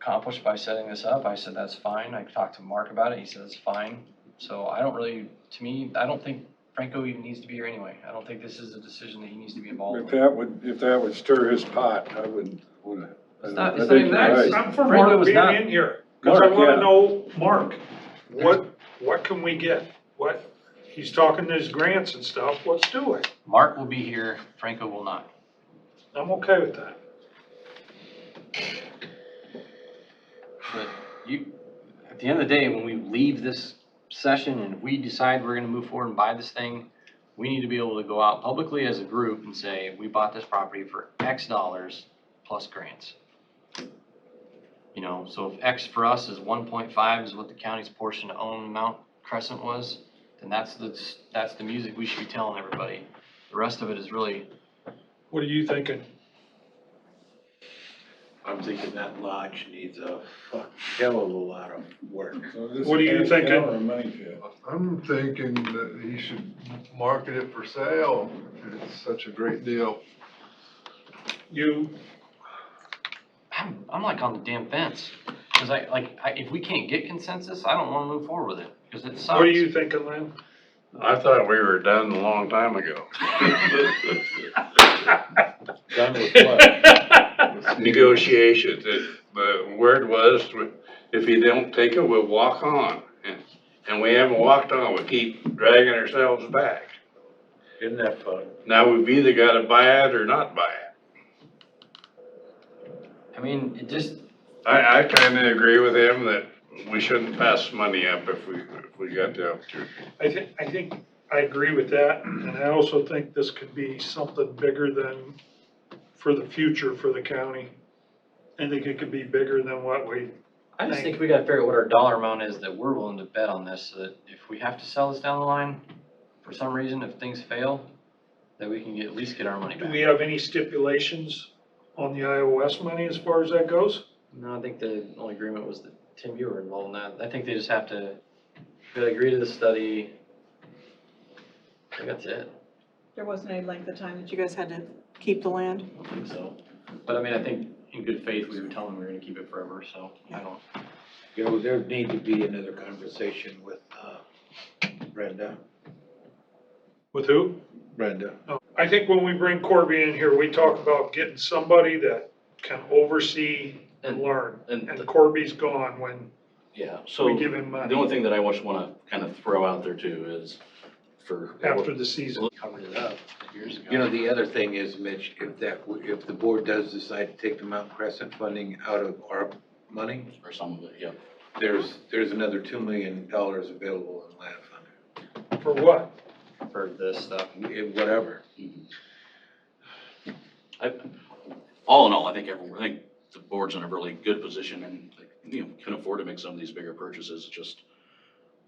accomplished by setting this up. I said, that's fine. I talked to Mark about it. He said, it's fine. So I don't really, to me, I don't think Franco even needs to be here anyway. I don't think this is a decision that he needs to be involved If with. that would, if that would stir his pot, I wouldn't wanna. It's not- I it's not think even you're that, it's right. just- I'm for Franco Mark was being not- in here, because I Mark, wanna yeah. know, Mark, what, what can we get? What, he's talking his grants and stuff, let's do it. Mark will be here, Franco will not. I'm okay with that. But you, at the end of the day, when we leave this session and we decide we're gonna move forward and buy this thing, we need to be able to go out publicly as a group and say, we bought this property for X dollars plus grants. You know, so if X for us is one point five is what the county's portion to own Mount Crescent was, then that's the, that's the music we should be telling everybody. The rest of it is really, What are you thinking? I'm thinking that lodge needs a fuck hell of a lot of work. So this What do you is thinking? our money pit. I'm thinking that he should market it for sale, it's such a great deal. You, I'm, I'm like on the damn fence. Cause I, like, I, if we can't get consensus, I don't wanna move forward with it, cause it sucks. what are you thinking, Lynn? I thought we were done a long time ago. Done with what? Negotiations, it- the word was, if you don't take it, we'll walk on. And- And we haven't walked on, we keep dragging ourselves back. Isn't that fun? Now we've either gotta buy it or not buy it. I mean, it just, I, I kinda agree with him that we shouldn't pass money up if we, if we got the opportunity. I think, I think, I agree with that, and I also think this could be something bigger than, for the future for the county. I think it could be bigger than what we, I just Thank think we gotta figure out what our dollar amount is that we're willing to bet on this, so that if we have to sell this down the line, for some reason, if things fail, that we can get, at least get our money do we back. have any stipulations on the IOS money as far as that goes? No, I think the only agreement was that Tim, you were involved in that. I think they just have to, they agree to the study. I think that's it. There wasn't any length of time that you guys had to keep the land? I don't think so. But I mean, I think in good faith, we were telling them we were gonna keep it forever, so I don't. There would, there would need to be another conversation with, uh, Brenda. With who? Brenda. No, I think when we bring Corby in here, we talk about getting somebody that can oversee and And- learn. and And the- Corby's gone when Yeah, so we give the him money only thing that I just wanna kind of throw out there too is for. after the season. Covered it up years ago. You know, the other thing is, Mitch, if that, w- if the board does decide to take the Mount Crescent funding out of our money, Or some of it, yeah. there's, there's another two million dollars available in land funding, For what? For this stuff. eh, whatever. I, all in all, I think everyone, I think the board's in a really good position and, like, you know, can afford to make some of these bigger purchases, It's just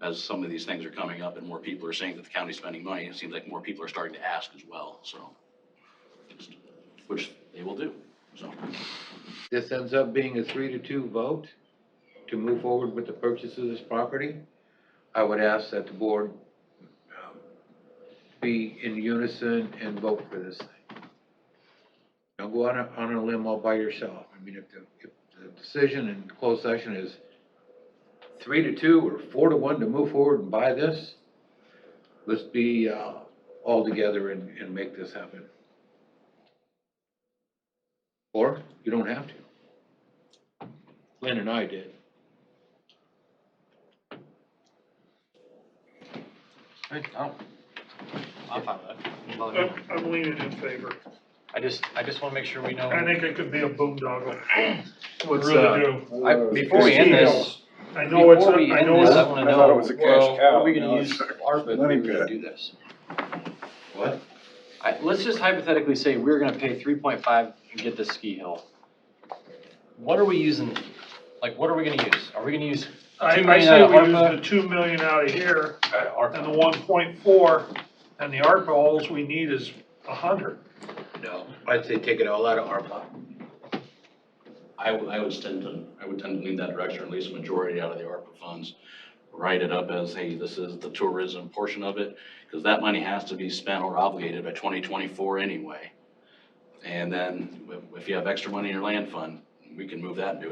as some of these things are coming up and more people are saying that the county's spending money, it seems like more people are starting to ask as well, so. just- Which they will do, so. This ends up being a three to two vote to move forward with the purchase of this property. I would ask that the board um, be in unison and vote for this thing. Don't go on a, on a limb all by yourself. I mean, if the, if the decision in closed session is three to two or four to one to move forward and buy this, let's be, uh, all together and, and make this happen. Or you don't have to. Lynn and I did. I mean, oh. I don't- I'm fine with that. Doesn't bother me. I'm I'm leaning in favor. I just, I just wanna make sure we know. I think it could be a boondoggle. I What's, really uh, do. I, before we end this, I know before it's, a- we I end know this, I it's, wanna I thought it know, was a cash well, what cow. are we No, gonna use it's- ARPA if money we're gonna pit. do this? What? I, let's just hypothetically say we're gonna pay three point five and get this ski hill. What are we using, like, what are we gonna use? Are we gonna use I, two I million say out of we use the ARPA? two million out of here Uh, and ARPA. the one point four and the ARPA, all we need is a hundred. No, I'd say take it all out of ARPA. I would, I would tend to, I would tend to lean that direction, at least a majority out of the ARPA funds. Write it up as, hey, this is the tourism portion of it, because that money has to be spent or obligated by twenty twenty-four anyway. And then if- if you have extra money in your land fund, we can move that and do